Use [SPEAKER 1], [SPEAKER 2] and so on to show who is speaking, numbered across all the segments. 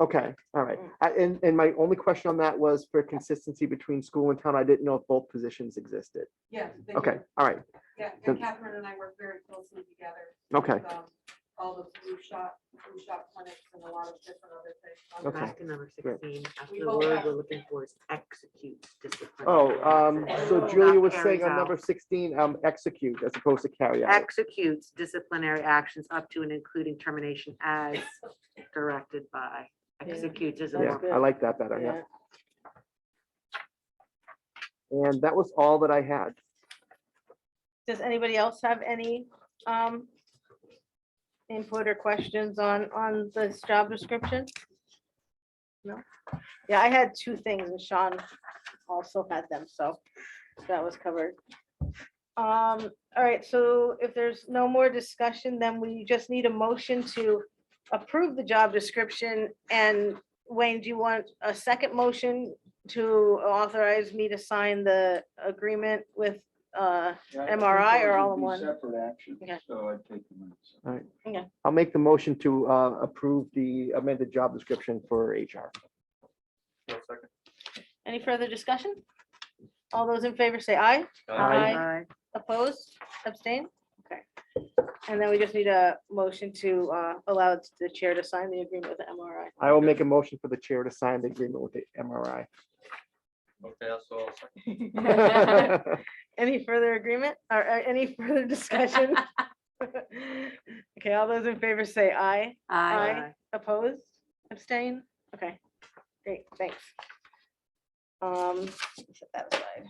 [SPEAKER 1] Okay, all right. I- And, and my only question on that was for consistency between school and town. I didn't know if both positions existed.
[SPEAKER 2] Yeah. they do.
[SPEAKER 1] Okay, all right,
[SPEAKER 2] Yeah,
[SPEAKER 1] then-
[SPEAKER 2] and Catherine and I work very closely together.
[SPEAKER 1] okay,
[SPEAKER 2] with, um, All the flu shot, flu shot clinics and a lot of different other things. Um, on
[SPEAKER 1] Okay.
[SPEAKER 2] that.
[SPEAKER 3] Back to number
[SPEAKER 1] Great.
[SPEAKER 3] sixteen, after
[SPEAKER 2] We
[SPEAKER 3] the
[SPEAKER 2] both
[SPEAKER 3] word
[SPEAKER 2] have-
[SPEAKER 3] we're looking for is execute discipline.
[SPEAKER 1] Oh, um, so
[SPEAKER 2] That
[SPEAKER 1] Julia was saying on
[SPEAKER 3] another.
[SPEAKER 1] number sixteen, um, execute as opposed to carry out.
[SPEAKER 3] Executes disciplinary actions up to and including termination as directed by,
[SPEAKER 4] Yeah.
[SPEAKER 3] executes is a
[SPEAKER 4] That's
[SPEAKER 1] Yeah,
[SPEAKER 3] more.
[SPEAKER 4] good.
[SPEAKER 1] I like that better, yeah.
[SPEAKER 4] Yeah.
[SPEAKER 1] And that was all that I had.
[SPEAKER 4] Does anybody else have any um input or questions on on this job description? No? Yeah, I had two things and Sean also had them, so that was covered. Um, all right, so if there's no more discussion, then we just need a motion to approve the job description. And Wayne, do you want a second motion to authorize me to sign the agreement with uh
[SPEAKER 5] Yeah, I
[SPEAKER 4] MRI
[SPEAKER 5] think
[SPEAKER 4] or
[SPEAKER 5] those
[SPEAKER 4] all
[SPEAKER 5] would
[SPEAKER 4] in
[SPEAKER 5] be
[SPEAKER 4] one?
[SPEAKER 5] Separate actions,
[SPEAKER 4] Okay.
[SPEAKER 5] so I'd take them. as separate.
[SPEAKER 1] I'll make the motion to, uh, approve the amended job description for HR.
[SPEAKER 4] Any further discussion? All those in favor say aye.
[SPEAKER 1] Aye.
[SPEAKER 4] Opposed, abstain? Okay. And then we just need a motion to uh, allow the chair to sign the agreement with the MRI.
[SPEAKER 1] I will make a motion for the chair to sign the agreement with the MRI.
[SPEAKER 6] Okay, so I'll second.
[SPEAKER 4] Any further agreement or uh, any further discussion? Okay, all those in favor say aye. Aye. Opposed, abstain? Okay, great, thanks. Um, set that aside.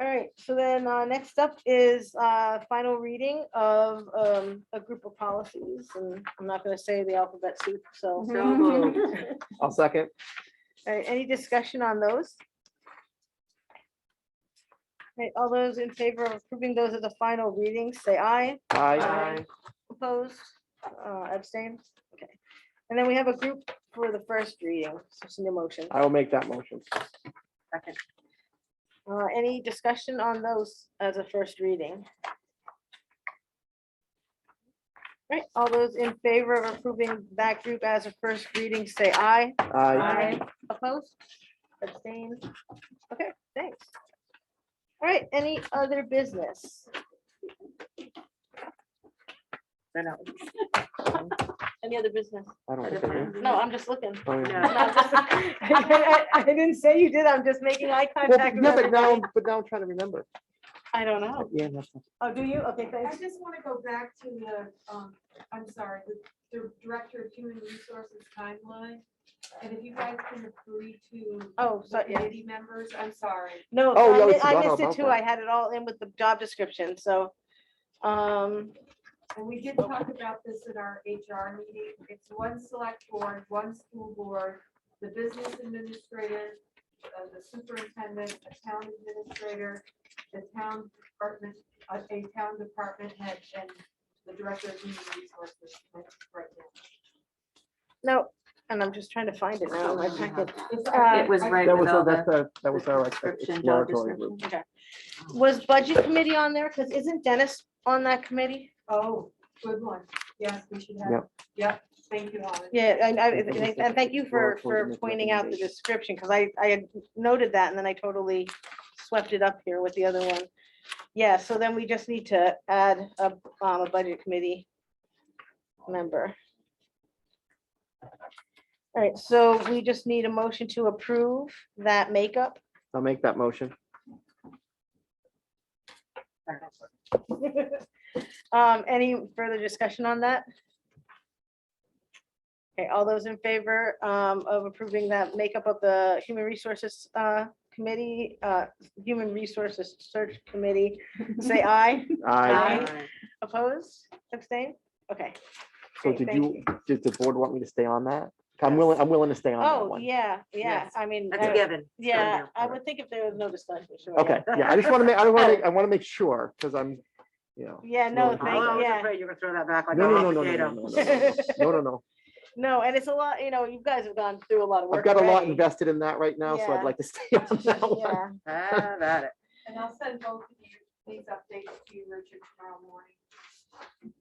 [SPEAKER 4] All right, so then, uh, next up is, uh, final reading of, um, a group of policies, and I'm not gonna say the alphabet soup, so.
[SPEAKER 3] So moved.
[SPEAKER 1] I'll second.
[SPEAKER 4] All right, any discussion on those? All right, all those in favor of approving those as the final reading, say aye.
[SPEAKER 1] Aye.
[SPEAKER 4] Aye. Opposed, uh, abstained, okay. And then we have a group for the first reading, so some motion.
[SPEAKER 1] I will make that motion.
[SPEAKER 4] Second. Uh, any discussion on those as a first reading? Right, all those in favor of approving that group as a first reading, say aye.
[SPEAKER 1] Aye.
[SPEAKER 4] Opposed, abstained, okay, thanks. All right, any other business?
[SPEAKER 3] No, no,
[SPEAKER 4] Any other business?
[SPEAKER 1] I don't think Um, I do.
[SPEAKER 4] No, I'm just looking.
[SPEAKER 1] I don't even-
[SPEAKER 3] no.
[SPEAKER 4] No, just- I, I- I- I didn't say you did, I'm just making eye
[SPEAKER 1] Well,
[SPEAKER 4] contact. with
[SPEAKER 1] Yeah, but now,
[SPEAKER 4] everybody.
[SPEAKER 1] I'm- but now I'm trying to remember.
[SPEAKER 4] I don't know.
[SPEAKER 1] Yeah, that's-
[SPEAKER 4] Oh, do you? Okay,
[SPEAKER 2] I
[SPEAKER 4] thanks.
[SPEAKER 2] just want to go back to the, um, I'm sorry, the the Director of Human Resources timeline. And if you guys can agree to
[SPEAKER 4] Oh, so,
[SPEAKER 2] the
[SPEAKER 4] yeah,
[SPEAKER 2] committee members, I'm sorry.
[SPEAKER 4] no,
[SPEAKER 1] Oh,
[SPEAKER 4] so
[SPEAKER 1] yeah,
[SPEAKER 4] I
[SPEAKER 1] we
[SPEAKER 4] mi- I
[SPEAKER 1] forgot all
[SPEAKER 4] missed it
[SPEAKER 1] about
[SPEAKER 4] too,
[SPEAKER 1] that.
[SPEAKER 4] I had it all in with the job description, so. Um,
[SPEAKER 2] And we did talk about this in our HR meeting. It's one select board, one school board, the business administrator, uh, the superintendent, a town administrator, the town department, a a town department head, and the director of human resources. That's right now.
[SPEAKER 4] no, and I'm just trying to find it now in my packet.
[SPEAKER 2] It's-
[SPEAKER 4] Uh,
[SPEAKER 3] It was
[SPEAKER 2] I-
[SPEAKER 3] right
[SPEAKER 1] That
[SPEAKER 3] with
[SPEAKER 1] was,
[SPEAKER 3] all
[SPEAKER 1] our-
[SPEAKER 3] the.
[SPEAKER 1] that's our, that was
[SPEAKER 3] the
[SPEAKER 1] our like,
[SPEAKER 3] description, job
[SPEAKER 1] exploratory group.
[SPEAKER 3] description.
[SPEAKER 4] Okay. Was budget committee on there? Because isn't Dennis on that committee?
[SPEAKER 2] Oh, good one. Yes, we should have.
[SPEAKER 1] Yep.
[SPEAKER 2] Yep, thank you, Holly.
[SPEAKER 4] Yeah, and I,
[SPEAKER 1] Yeah, but we
[SPEAKER 4] and
[SPEAKER 1] said
[SPEAKER 4] and thank you for,
[SPEAKER 1] exploratory
[SPEAKER 4] for
[SPEAKER 1] make
[SPEAKER 4] pointing out the
[SPEAKER 1] recommendations.
[SPEAKER 4] description, because I, I had noted that, and then I totally swept it up here with the other one. Yeah, so then we just need to add a, um, a budget committee member. All right, so we just need a motion to approve that makeup.
[SPEAKER 1] I'll make that motion.
[SPEAKER 4] Um, any further discussion on that? Okay, all those in favor um, of approving that makeup of the Human Resources uh, Committee, uh, Human Resources Search Committee, say aye.
[SPEAKER 1] Aye.
[SPEAKER 4] Aye. Opposed, abstain? Okay.
[SPEAKER 1] So
[SPEAKER 4] great,
[SPEAKER 1] did
[SPEAKER 4] thank
[SPEAKER 1] you, did the board want me to stay on that? I'm willing, I'm willing to stay on that
[SPEAKER 4] Oh,
[SPEAKER 1] one.
[SPEAKER 4] yeah, yeah,
[SPEAKER 3] Yes,
[SPEAKER 4] I mean,
[SPEAKER 3] That's a
[SPEAKER 4] uh,
[SPEAKER 3] given. So,
[SPEAKER 4] yeah, I
[SPEAKER 1] all right.
[SPEAKER 4] would think if there was no discussion. sure,
[SPEAKER 1] Okay, yeah, I just want to make, I want to, I want to make sure, because I'm, you know.
[SPEAKER 4] Yeah, Yeah,
[SPEAKER 1] Well,
[SPEAKER 4] no,
[SPEAKER 3] Oh, I
[SPEAKER 4] thank,
[SPEAKER 1] well,
[SPEAKER 3] was
[SPEAKER 4] yeah.
[SPEAKER 3] afraid you were gonna throw that back like a
[SPEAKER 1] No, no,
[SPEAKER 3] hot
[SPEAKER 1] no, no, no, no, no,
[SPEAKER 3] potato.
[SPEAKER 1] no, no, no, no, no.
[SPEAKER 4] No, and it's a lot, you know, you guys have gone through a lot of work.
[SPEAKER 1] I've got a lot
[SPEAKER 4] already.
[SPEAKER 1] invested in that right now, so
[SPEAKER 4] Yeah.
[SPEAKER 1] I'd like to stay on that one.
[SPEAKER 4] Yeah.
[SPEAKER 3] Have at it.
[SPEAKER 2] And I'll send both of you these updates to you, Richard, tomorrow morning.